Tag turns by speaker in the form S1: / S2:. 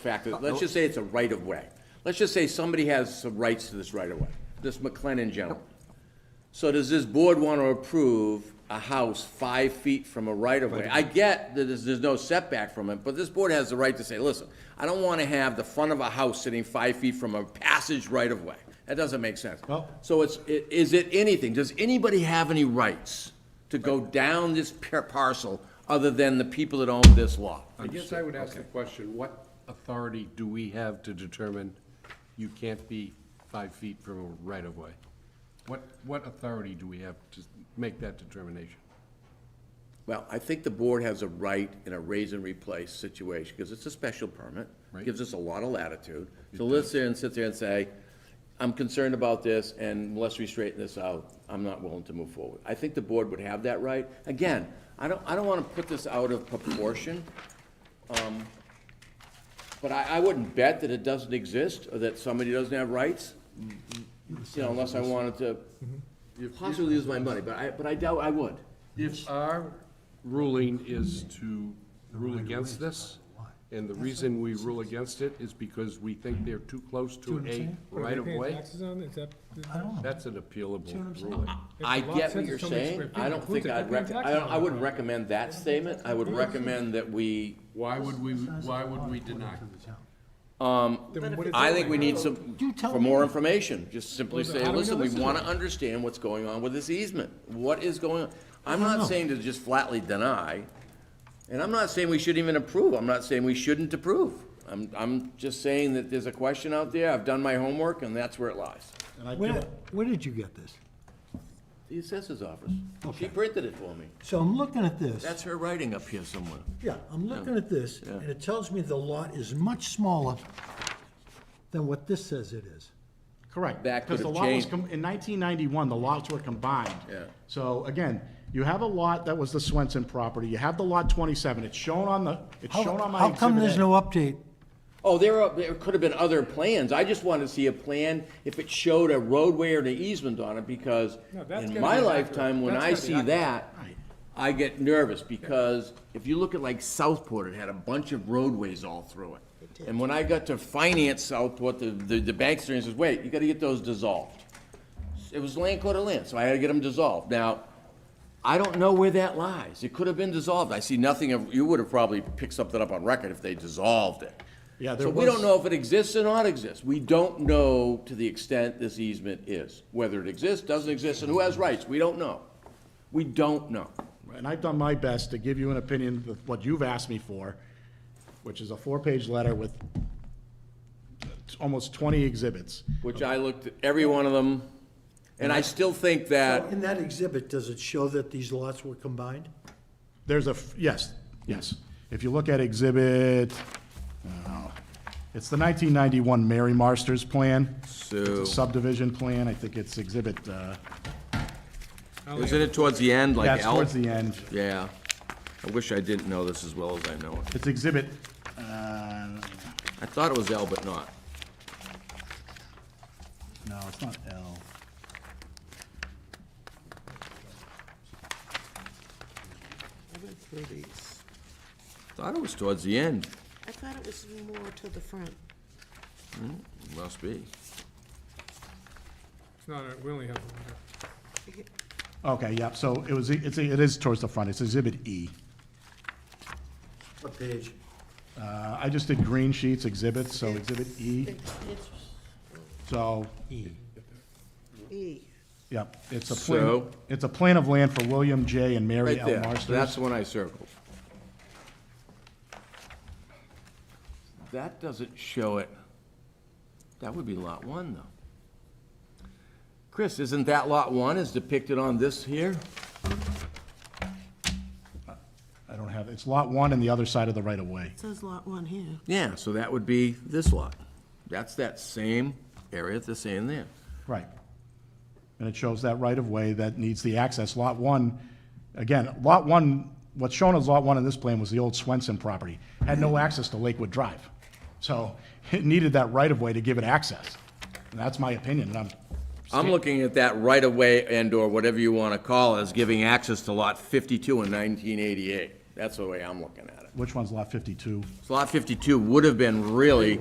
S1: fact that, let's just say it's a right-of-way. Let's just say somebody has some rights to this right-of-way, this McLennan gentleman. So does this board want to approve a house five feet from a right-of-way? I get that there's, there's no setback from it, but this board has the right to say, listen, I don't want to have the front of a house sitting five feet from a passage right-of-way. That doesn't make sense.
S2: No.
S1: So it's, i- is it anything, does anybody have any rights to go down this par- parcel other than the people that own this lot?
S3: I guess I would ask the question, what authority do we have to determine you can't be five feet from a right-of-way? What, what authority do we have to make that determination?
S1: Well, I think the board has a right in a raise and replace situation, because it's a special permit.
S3: Right.
S1: Gives us a lot of latitude. So let's sit and sit there and say, I'm concerned about this, and unless we straighten this out, I'm not willing to move forward. I think the board would have that right. Again, I don't, I don't want to put this out of proportion, um, but I, I wouldn't bet that it doesn't exist, or that somebody doesn't have rights, you know, unless I wanted to possibly lose my money, but I, but I doubt I would.
S3: If our ruling is to rule against this, and the reason we rule against it is because we think they're too close to a right-of-way,
S4: Taxes on, is that?
S2: I don't know.
S3: that's an appealable ruling.
S4: If
S1: I
S4: the lot
S1: get
S4: says
S1: what you're
S4: it's so many
S1: saying.
S4: square feet,
S1: I don't think
S4: includes it,
S1: I'd
S4: that'd
S1: rec,
S4: be
S1: I
S4: exactly
S1: don't, I wouldn't recommend that statement. I would recommend that we,
S3: Why would we, why would we deny?
S4: Then what is
S1: I
S4: it?
S1: think we need some,
S2: You tell
S1: for
S2: me.
S1: more information. Just simply
S4: Well,
S1: say,
S4: how do we
S1: listen,
S4: know
S1: we
S4: this is
S1: want to understand what's going on with this easement. What is going on? I'm
S2: I don't
S1: not
S2: know.
S1: saying to just flatly deny, and I'm not saying we shouldn't even approve. I'm not saying we shouldn't approve. I'm, I'm just saying that there's a question out there. I've done my homework, and that's where it lies.
S2: Where, where did you get this?
S1: The assessor's office. She
S2: Okay.
S1: printed it for me.
S2: So I'm looking at this.
S1: That's her writing up here somewhere.
S2: Yeah, I'm looking at this, and it tells me the lot is much smaller than what this says it is.
S5: Correct.
S1: That could
S5: Because the
S1: have
S5: lot was,
S1: changed.
S5: com- in 1991, the lots were combined.
S1: Yeah.
S5: So again, you have a lot that was the Swenson property, you have the lot 27, it's shown on the, it's
S2: How,
S5: shown on my
S2: how come
S5: exhibit
S2: there's
S5: A.
S2: no update?
S1: Oh, there are, there could have been other plans. I just wanted to see a plan if it showed a roadway or an easement on it, because
S4: No, that's
S1: in
S4: gotta
S1: my
S4: be accurate.
S1: lifetime, when
S4: That's
S1: I
S4: gotta be
S1: see
S4: accurate.
S1: that, I get nervous, because if you look at like Southport, it had a bunch of roadways all through it. And when I got to finance Southport, the, the, the bank says, wait, you gotta get those dissolved. It was land court to land, so I had to get them dissolved. Now, I don't know where that lies. It could have been dissolved. I see nothing of, you would have probably picked something up on record if they dissolved it.
S5: Yeah, there
S1: So we don't
S5: was-
S1: know if it exists or not exists. We don't know to the extent this easement is, whether it exists, doesn't exist, and who has rights. We don't know. We don't know.
S5: And I've done my best to give you an opinion of what you've asked me for, which is a four-page letter with almost 20 exhibits.
S1: Which I looked at every one of them, and I still think
S5: Uh,
S1: that,
S2: In that exhibit, does it show that these lots were combined?
S5: There's a, f- yes, yes. If you look at exhibit, oh, it's the 1991 Mary Marsters plan.
S1: So-
S5: It's a subdivision plan, I think it's exhibit, uh,
S1: isn't it towards the end, like
S5: that's
S1: L?
S5: towards the end.
S1: Yeah. I wish I didn't know this as well as I know it.
S5: It's exhibit, uh,
S1: I thought it was L, but not.
S5: no, it's not L.
S1: Thought it was towards the end.
S6: I thought it was more to the front.
S1: Must be.
S4: It's not, a- we only have one here.
S5: Okay, yeah, so it was, it's, it is towards the front, it's exhibit E.
S2: What page?
S5: Uh, I just did green sheets exhibit, so exhibit E,
S6: It's,
S5: so,
S6: it's E.
S5: yep, it's a plan,
S1: So-
S5: it's a plan of land for William J. and Mary
S1: Right
S5: L.
S1: there,
S5: Marsters.
S1: that's the one I circled. That doesn't show it. That would be lot one, though. Chris, isn't that lot one is depicted on this here?
S5: I don't have, it's lot one and the other side of the right of way.
S6: It says lot one here.
S1: Yeah, so that would be this lot. That's that same area that's saying there.
S5: Right. And it shows that right of way that needs the access. Lot one, again, lot one, what's shown as lot one in this plan was the old Swenson property. Had no access to Lakewood Drive. So it needed that right of way to give it access. And that's my opinion, and I'm,
S1: I'm looking at that right-of-way and/or whatever you want to call it, as giving access to lot 52 in 1988. That's the way I'm looking at it.
S5: Which one's lot fifty-two?
S1: So lot fifty-two would have been really